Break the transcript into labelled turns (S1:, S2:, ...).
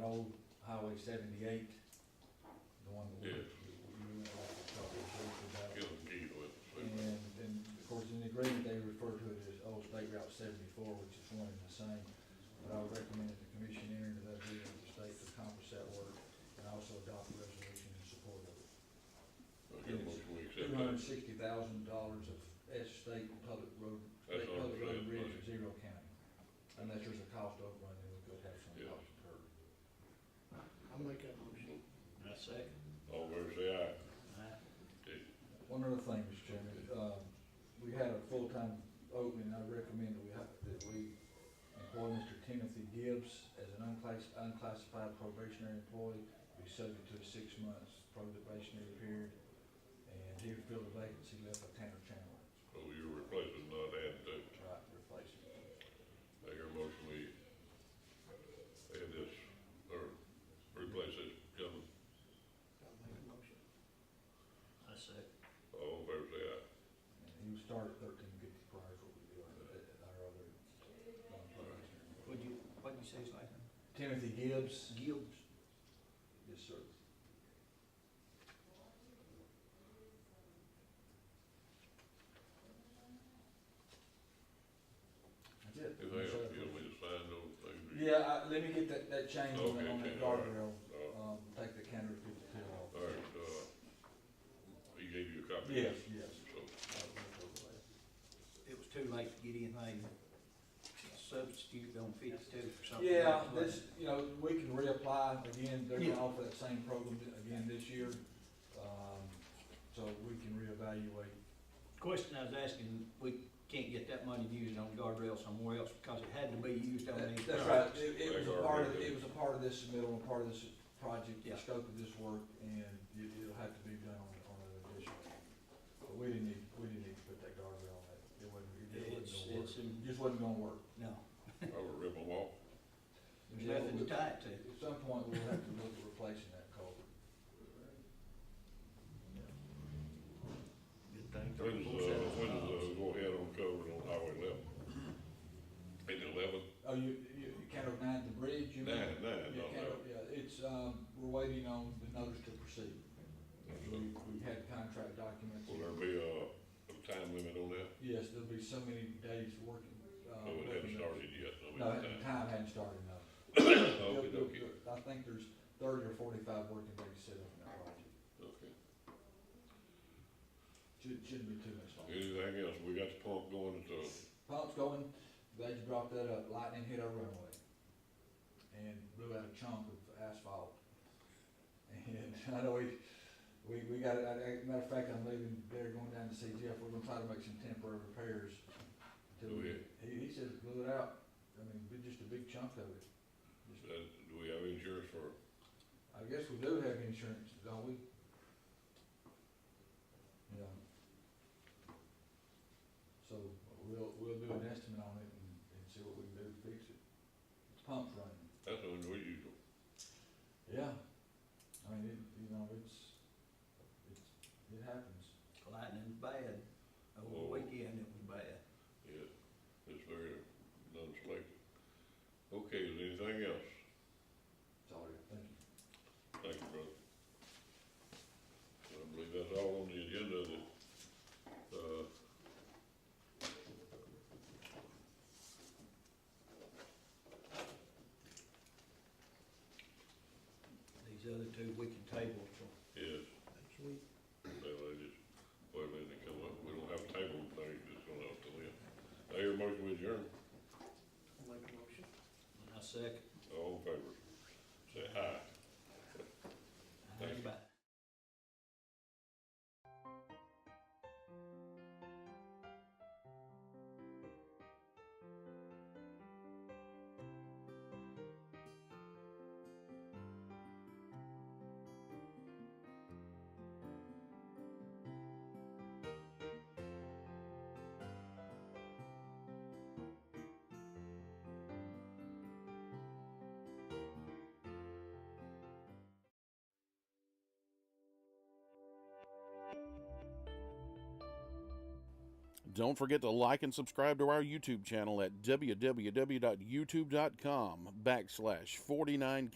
S1: old Highway seventy-eight, the one that we,
S2: Yeah.
S1: we went off the top of the roof about.
S2: Killing Keith with the
S1: And,
S2: super.
S1: and of course, in the agreement, they refer to it as Old State Route seventy-four, which is one and the same. But I would recommend that the commission enter into that agreement with the state to accomplish that work and also adopt a resolution in support of it.
S2: Okay, motion we accept
S1: Two hundred and
S2: that.
S1: sixty thousand dollars of S state public road, state
S2: That's our
S1: public road
S2: grant
S1: and bridge at
S2: money.
S1: zero county. Unless there's a cost overrun, then we could have some
S2: Yeah.
S1: cost incurred.
S3: I'll make that motion.
S4: I second.
S2: All fair say aye.
S4: Aye.
S1: One other thing, Mr. Chairman, um, we had a full-time opening, I recommend that we, have- that we employ Mr. Timothy Gibbs as an unclass- unclassified probationary employee, be subject to a six months probationary period, and he would fill the vacancy left by Tanner Chandler,
S2: So you're replacing, not adding to. it.
S1: right, replace him.
S2: I hear a motion we add this, or replace this gentleman.
S3: I'll make a motion.
S4: I second.
S2: All fair say aye.
S1: And he would start at thirteen fifty prior to what we do, at at our other uh, non-probationary.
S4: What'd you, what'd you say, his last name?
S1: Timothy Gibbs,
S4: Gibbs.
S1: yes, sir. That's it.
S2: If they have, you want me to sign those things? or you-
S1: Yeah, I, let me get that, that change on that, on
S2: Okay,
S1: that
S2: okay, all right.
S1: guardrail,
S2: Uh,
S1: um, take the counter fifty-two off.
S2: All right, uh, he gave you a copy? of
S1: Yes,
S2: this?
S1: yes.
S2: So,
S4: It was too late to get anything substituted on fifty-two for something.
S1: Yeah,
S4: else,
S1: this,
S4: wasn't
S1: you know, we can reapply again, they're
S4: Yeah.
S1: gonna offer that same program again this year, um, so we can reevaluate
S4: it? Question I was asking, we can't get that money used on guardrail somewhere else because it had to be used on these.
S1: That- That's right,
S4: projects.
S1: it, it was a
S2: Like
S1: part
S2: our-
S1: of, it was a part of this submittal and part of this project, the
S4: Yeah.
S1: scope of this work, and it, it'll have to be done on, on an addition. But we didn't need, we didn't need to put that guardrail on that, it wasn't, it
S4: It's,
S1: just wasn't gonna work,
S4: it's, in-
S1: It just wasn't gonna work.
S4: no,
S2: I will rip them off.
S4: there's nothing to tie it to.
S1: At some point, we'll have to look at replacing that culvert.
S4: Good thing.
S2: When's, uh, when's, uh, go ahead on cover on Highway eleven? Eight eleven?
S1: Oh, you, you, you can't nine the bridge, you mean?
S2: Nine, nine,
S1: Yeah,
S2: not
S1: Caddo- yeah, it's, um, we're waiting on the notice to proceed, we,
S2: eleven.
S1: we had contract documents.
S2: Will there be a, a time limit on that?
S1: Yes, there'll be so many days working. uh,
S2: No, it
S1: working
S2: hasn't
S1: those.
S2: started yet, so we
S1: No,
S2: can
S1: the time
S2: time.
S1: hadn't started, no.
S2: Oh, Okay,
S1: They'll-
S2: okay,
S1: they'll- I think there's thirty or forty-five working days set up in that project.
S2: okay.
S1: Shouldn't, shouldn't be too much longer.
S2: Anything else? We got the pump going at the,
S1: Pump's going, glad you brought that up, lightning hit our runway. And blew out a chunk of asphalt. And I know we, we, we got, I, I, matter of fact, I'm leaving there going down to see Jeff, we're gonna try to make some temporary repairs. till
S2: Do
S1: we-
S2: it.
S1: He, he says blew it out, I mean, but just a big chunk of it.
S2: uh, do we have insurance for,
S1: I guess we do have insurance, don't we? Yeah. So we'll, we'll do an estimate on it and, and see what we can do to fix it. The pump's running.
S2: that's unusual.
S1: Yeah. I mean, it, you know, it's, it's, it happens.
S4: Lightning's bad. Over the
S2: Oh.
S4: weekend, it was bad.
S2: Yeah, it's very non-selective. Okay, is there anything else?
S1: Sorry, thank you.
S2: Thank you, brother. I believe that's all on the agenda that, uh,
S4: These other two, we can table till
S2: is,
S3: Next week.
S2: that I just, well, then they come up, we don't have a table, they just gonna have to live. I hear a motion with adjourn,
S3: I'll make a motion.
S4: I second.
S2: all in favor, say aye. Thank you.
S4: Bye.
S5: Don't forget to like and subscribe to our YouTube channel at www.youtube.com backslash 49